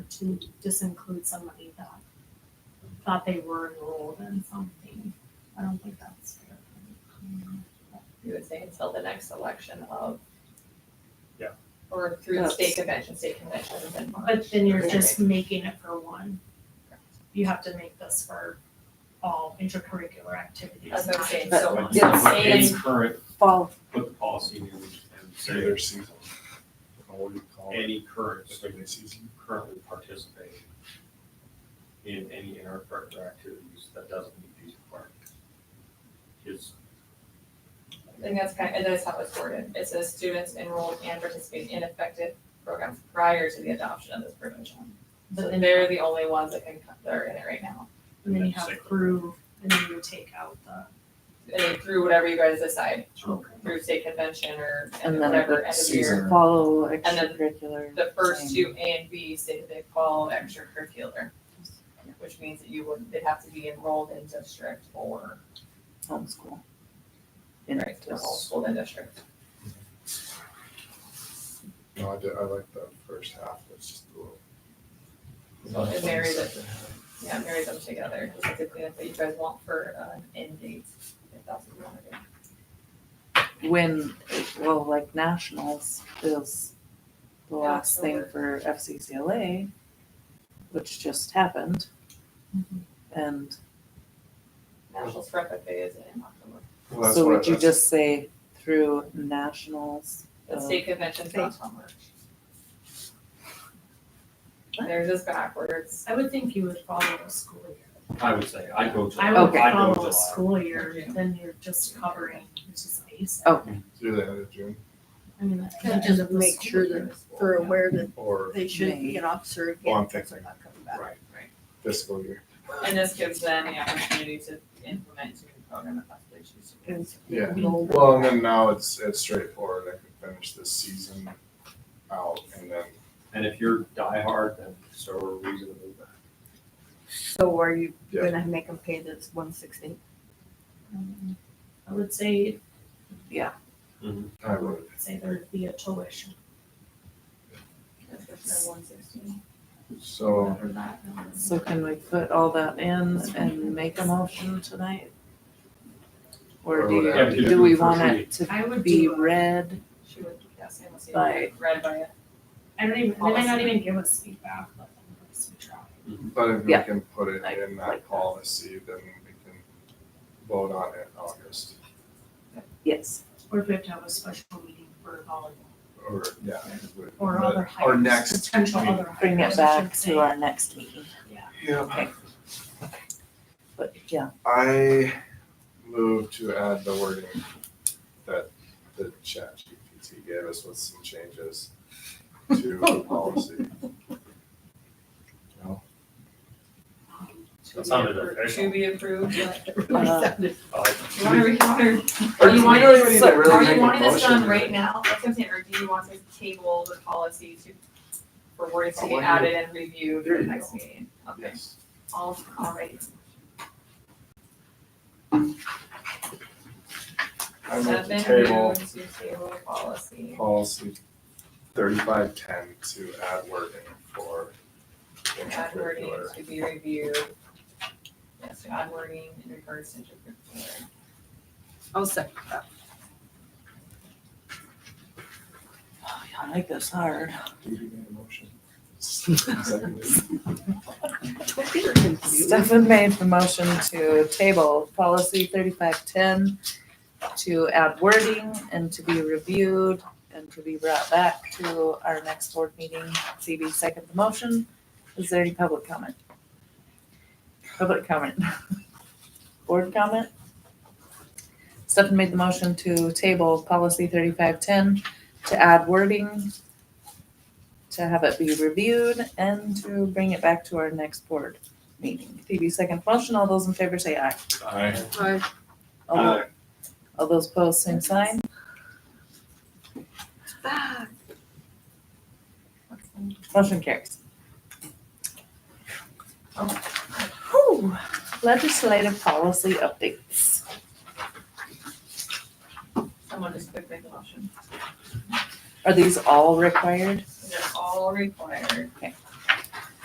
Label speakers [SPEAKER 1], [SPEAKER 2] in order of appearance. [SPEAKER 1] to just include somebody that thought they were enrolled in something. I don't think that's fair.
[SPEAKER 2] You would say until the next election of.
[SPEAKER 3] Yeah.
[SPEAKER 2] Or through the
[SPEAKER 1] That's-
[SPEAKER 2] state convention, state convention is in March.
[SPEAKER 1] But then you're just making it for one. You have to make this for all intercurricular activities.
[SPEAKER 2] That's what I'm
[SPEAKER 1] not
[SPEAKER 2] saying,
[SPEAKER 1] just
[SPEAKER 2] so
[SPEAKER 1] one.
[SPEAKER 3] Like,
[SPEAKER 2] Yeah.
[SPEAKER 3] like
[SPEAKER 2] It's-
[SPEAKER 3] any current,
[SPEAKER 4] fall,
[SPEAKER 3] put the policy in, there, we should have,
[SPEAKER 5] Say
[SPEAKER 3] say
[SPEAKER 5] their season. Or What do you call it?
[SPEAKER 3] any current
[SPEAKER 5] Just
[SPEAKER 3] student
[SPEAKER 5] like their season.
[SPEAKER 3] currently participating in any intercurricular activities that doesn't meet these requirements. Is,
[SPEAKER 2] I think that's kind, of that's how it's worded. It says students enrolled and participate in effective programs prior to the adoption of this provision. So
[SPEAKER 1] But then,
[SPEAKER 2] they're the only ones that can, they're in it right now.
[SPEAKER 1] and then you have through, and then you take out the.
[SPEAKER 2] And then through whatever you guys decide,
[SPEAKER 1] Okay.
[SPEAKER 2] through state convention or and
[SPEAKER 4] And then
[SPEAKER 2] whatever end of year.
[SPEAKER 5] Season.
[SPEAKER 4] follow
[SPEAKER 2] then
[SPEAKER 4] extracurricular.
[SPEAKER 2] The first
[SPEAKER 4] Same.
[SPEAKER 2] two A and B say that they follow extracurricular, which means that you would, they'd have to be enrolled in district or
[SPEAKER 4] homeschool.
[SPEAKER 2] Right, to the whole school and district.
[SPEAKER 5] No, I did, I like the first half, it's just a little.
[SPEAKER 2] So it marries it, yeah, it marries them together, just to clean up what you guys want for, uh, end dates, if that's what you wanna do.
[SPEAKER 4] When, well, like nationals is the
[SPEAKER 2] Yeah,
[SPEAKER 4] last thing
[SPEAKER 2] October.
[SPEAKER 4] for FCCLA, which just happened.
[SPEAKER 2] Mm-hmm.
[SPEAKER 1] Mhm.
[SPEAKER 4] And
[SPEAKER 2] National Scrap FA is in October,
[SPEAKER 5] Well, that's
[SPEAKER 4] so
[SPEAKER 5] what I-
[SPEAKER 4] would you
[SPEAKER 5] that's-
[SPEAKER 4] just say through nationals?
[SPEAKER 2] the
[SPEAKER 4] Oh.
[SPEAKER 2] state convention's not till March. There's this backwards,
[SPEAKER 1] I would think you would follow the school year.
[SPEAKER 3] I would say, I go to, I
[SPEAKER 1] I
[SPEAKER 3] go
[SPEAKER 1] would
[SPEAKER 3] to
[SPEAKER 1] follow a
[SPEAKER 3] July.
[SPEAKER 1] school year, then you're just covering, which is basic.
[SPEAKER 4] Oh.
[SPEAKER 5] Do the end of June
[SPEAKER 1] I mean, that-
[SPEAKER 6] And just make sure that they're aware that
[SPEAKER 5] or
[SPEAKER 6] they shouldn't be an officer
[SPEAKER 5] Well, I'm
[SPEAKER 6] again, because they're
[SPEAKER 5] thinking-
[SPEAKER 6] not coming back.
[SPEAKER 3] Right.
[SPEAKER 5] fiscal year?
[SPEAKER 2] and this gives them the opportunity to implement to the program if that's what they choose to do.
[SPEAKER 4] Mm.
[SPEAKER 6] Because
[SPEAKER 5] Yeah.
[SPEAKER 6] enrolled.
[SPEAKER 5] Well, and then now it's, it's straightforward, I can finish this season out and then
[SPEAKER 3] And if you're diehard, then so are we to move back.
[SPEAKER 6] So are you
[SPEAKER 5] Yeah.
[SPEAKER 6] gonna make them pay this one sixty?
[SPEAKER 1] um, I would say,
[SPEAKER 5] I
[SPEAKER 1] I
[SPEAKER 5] would.
[SPEAKER 1] would say there'd be a tuition.
[SPEAKER 2] That's what's in one sixteen.
[SPEAKER 3] Oh.
[SPEAKER 5] So,
[SPEAKER 2] Or that, um,
[SPEAKER 4] So can we put all that in and make a motion tonight? Or
[SPEAKER 5] Or
[SPEAKER 4] do
[SPEAKER 5] whatever.
[SPEAKER 4] you,
[SPEAKER 3] Yeah,
[SPEAKER 4] do we
[SPEAKER 3] do it for
[SPEAKER 4] want
[SPEAKER 3] free.
[SPEAKER 4] it to
[SPEAKER 1] I would
[SPEAKER 4] be
[SPEAKER 1] do, a-
[SPEAKER 4] read?
[SPEAKER 2] She would, yeah, same, let's see,
[SPEAKER 4] By-
[SPEAKER 2] read by it.
[SPEAKER 1] I don't even, they might not even give us feedback, but then we'll just try.
[SPEAKER 5] but if we
[SPEAKER 4] Yeah.
[SPEAKER 5] can put it
[SPEAKER 4] I
[SPEAKER 5] in
[SPEAKER 4] like
[SPEAKER 5] that
[SPEAKER 4] that.
[SPEAKER 5] policy, then we can vote on it in August
[SPEAKER 4] Yes.
[SPEAKER 1] Or if we have to have a special meeting for volleyball
[SPEAKER 5] or, yeah. if we-
[SPEAKER 1] or
[SPEAKER 5] but-
[SPEAKER 1] other
[SPEAKER 5] Or
[SPEAKER 1] hires,
[SPEAKER 5] next.
[SPEAKER 1] potential
[SPEAKER 5] meeting.
[SPEAKER 1] other hires.
[SPEAKER 4] Bring
[SPEAKER 1] I
[SPEAKER 4] it
[SPEAKER 1] should
[SPEAKER 4] back
[SPEAKER 1] say.
[SPEAKER 4] to our next meeting,
[SPEAKER 5] Yeah,
[SPEAKER 4] but yeah,
[SPEAKER 5] I move to add the wording that the chat GPT gave us with some changes to the policy.
[SPEAKER 2] To
[SPEAKER 3] That
[SPEAKER 2] be
[SPEAKER 3] sounded
[SPEAKER 2] appro-
[SPEAKER 3] official.
[SPEAKER 2] To be approved, but
[SPEAKER 4] Uh,
[SPEAKER 2] you wanna, you wanna, you
[SPEAKER 5] Or do
[SPEAKER 2] want
[SPEAKER 5] we really need to
[SPEAKER 2] so-
[SPEAKER 5] really
[SPEAKER 2] are
[SPEAKER 5] make
[SPEAKER 2] you
[SPEAKER 5] a
[SPEAKER 2] wanting this done
[SPEAKER 5] motion?
[SPEAKER 2] right now, that's what I'm saying, or do you want to table the policy to, for words to
[SPEAKER 5] I
[SPEAKER 2] get
[SPEAKER 5] want
[SPEAKER 2] added and reviewed
[SPEAKER 5] There
[SPEAKER 2] for the
[SPEAKER 5] you
[SPEAKER 2] next
[SPEAKER 5] go.
[SPEAKER 2] meeting? Okay,
[SPEAKER 5] Yes.
[SPEAKER 2] all, all right,
[SPEAKER 5] I move to
[SPEAKER 2] seven,
[SPEAKER 5] table
[SPEAKER 2] moved to table policy,
[SPEAKER 5] policy thirty-five ten to add wording for
[SPEAKER 2] add wording
[SPEAKER 5] intercurricular.
[SPEAKER 2] to be reviewed. Yes, to add wording in regards to intercurricular.
[SPEAKER 6] I'll second that.
[SPEAKER 4] oh, yeah, I like this hard.
[SPEAKER 5] Do you need a motion? Seconded.
[SPEAKER 4] Stefan made the motion to table policy thirty-five ten to add wording and to be reviewed and to be brought back to our next board meeting. CB second the motion. Is there any public comment? Public comment. Board comment? Stefan made the motion to table policy thirty-five ten to add wording, to have it be reviewed and to bring it back to our next board meeting. Phoebe second motion, all those in favor say aye.
[SPEAKER 5] Aye.
[SPEAKER 4] All tho- All those opposed, same sign. Motion carries. Whew. Legislative policy updates.
[SPEAKER 2] Someone just quick make a motion.
[SPEAKER 4] Are these all required?
[SPEAKER 2] They're all required.
[SPEAKER 4] Okay.